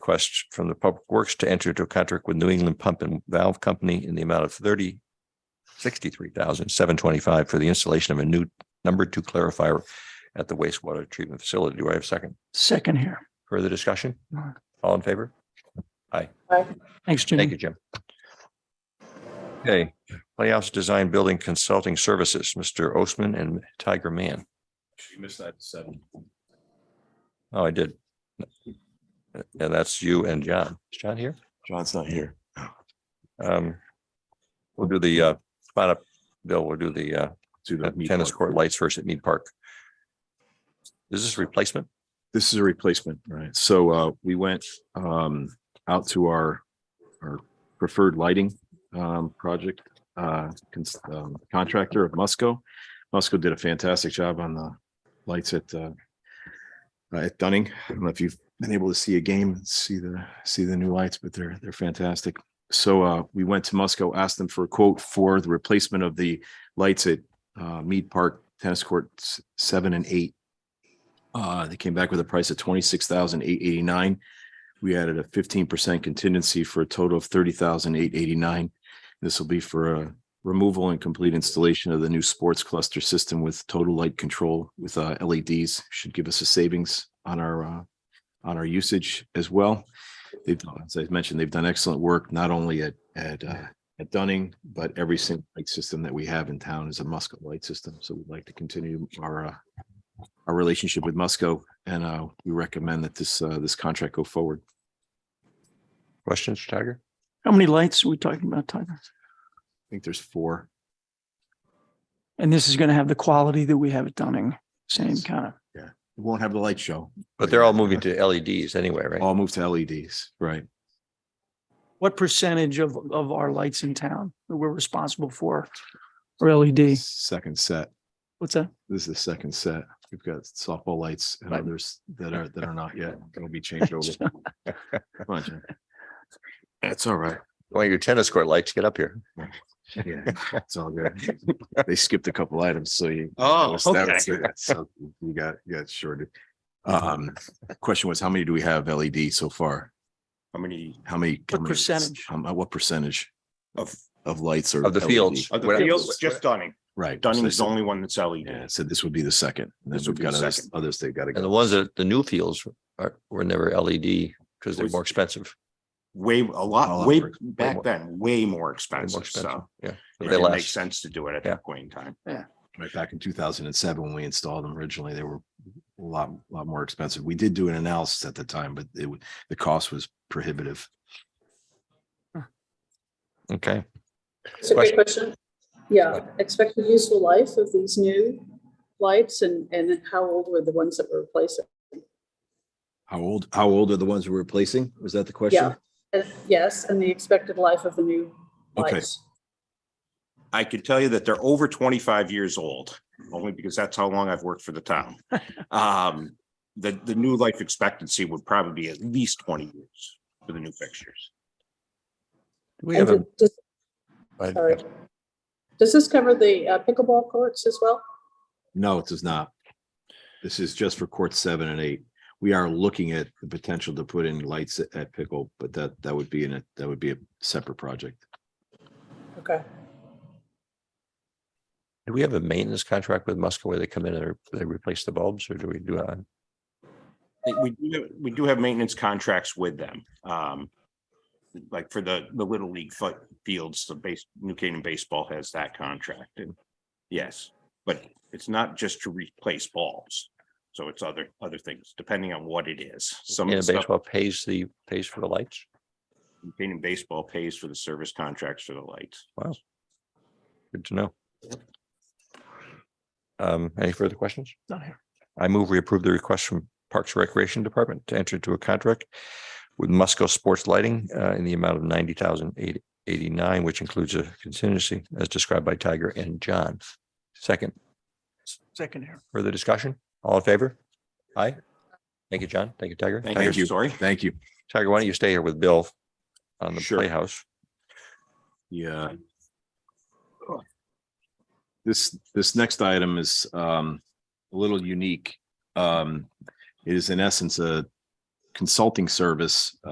request from the Public Works to enter into a contract with New England Pump and Valve Company in the amount of thirty sixty-three thousand seven twenty-five for the installation of a new number two clarifier at the wastewater treatment facility. Do I have a second? Second here. Further discussion? No. All in favor? Thanks, Thank you, Jimmy. Jim. Okay, Playhouse Design Building Consulting Services, Mr. Osman and Tiger Man. You missed that seven. Oh, I did. And that's you and John. Is John here? John's not here. Um, We'll do the, uh, spot up, Bill, we'll do the, uh, Do the at meat tennis one. court lights first at Mead Park. Is this replacement? This is a replacement, right? So uh, we went um out to our our preferred lighting um project uh cons- um, contractor of Musco. Musco did a fantastic job on the lights at uh at Dunning. I don't know if you've been able to see a game, and see the see the new lights, but they're they're fantastic. So uh we went to Musco, asked them for a quote for the replacement of the lights at uh Mead Park Tennis Courts seven and eight. Uh, they came back with a price of twenty-six thousand eight eighty-nine. We added a fifteen percent contingency for a total of thirty thousand eight eighty-nine. This will be for a removal and complete installation of the new sports cluster system with total light control with uh, LEDs. Should give us a savings on our uh, on our usage as well. They've, as I mentioned, they've done excellent work not only at at uh, at Dunning, but every single light system that we have in town is a Muscat light system. So we'd like to continue our uh, our relationship with Musco, and uh, we recommend that this uh, this contract go forward. Questions, Tiger? How many lights are we talking about, Tiger? I think there's four. And this is going to have the quality that we have at Dunning, same Yes. kind of. We won't have the light show. But they're all moving to LEDs anyway, right? Oh. All move to LEDs, right? What percentage of, of our lights in town that we're responsible for are LED? Second set. What's that? This is the second set. We've got softball lights and Right. others that are that are not yet. It'll be changed over. Come on, Jim. That's all right. One of your tennis court lights, get up here. Yeah, it's all good. They skipped a couple items, so you Oh, Yes, that was it. So You got, you got shorted. Um, question was, how many do we have LED so far? How many How many? how What many- percentage? How, mu- what percentage of, of lights are? Of the LED? fields. of the What- fields, just Dunning. Right. Dunning So is the they said- only one that's E Yeah, LED. so this would be the second. And then This would we've be the got others, second. others they've got to And the go. ones that the new fields are, were never LED because they're Was- more expensive. Way, A a lot, lot way more ex- way back more. then, way more They're more expensive. expensive. So Yeah. it They didn't make last. sense to do it at Yeah. that point in time. Right back in two thousand and seven, when we installed them originally, they were a lot, lot more expensive. We did do an analysis at the time, but it, would- the cost was prohibitive. Okay. It's a great question. Yeah, expected useful life of these new lights and, and how old were the ones that were replacing? How old, how old are the ones we're replacing? Was that the Yeah. Uh, Yes, and the expected life of the new Okay. lights. I could tell you that they're over twenty-five years old, only because that's how long I've worked for the town. Um, the, the new life expectancy would probably be at least twenty years for the new fixtures. Do We have a, And does- I- sorry. Does this cover the uh, pickleball courts as well? No, it does not. This is just for court seven and eight. We are looking at the potential to put in lights at- at Pickle, but that, that would be in a, that would be a separate project. Okay. do we have a maintenance contract with Musco where they come in and re- they replace the bulbs or do we do? uh, We do, have- we do have maintenance contracts with them. Um, like for the, the Little League foot fields, the base, New Canaan Baseball has that contract and yes, but it's not just to replace balls. So it's other, other things, depending on what it is. Some of Canada the stuff baseball pays the, pays for the lights? New Canaan Baseball pays for the service contracts for the lights. Good to know. Um, any further questions? Not here. I move we approve the request from Parks and Recreation Department to enter into a contract with Musco Sports Lighting uh, in the amount of ninety thousand eight eighty-nine, which includes a contingency as described by Tiger and John. Second, Second here. further discussion? All in favor? Aye. Thank you, John. Thank you, Tiger. Thank Tiger, you, sorry. Thank you. Tiger, why don't you stay here with Bill on the Sure. playhouse? Yeah. uh, This, this next item is um, a little unique. Um, It is in essence a consulting service uh,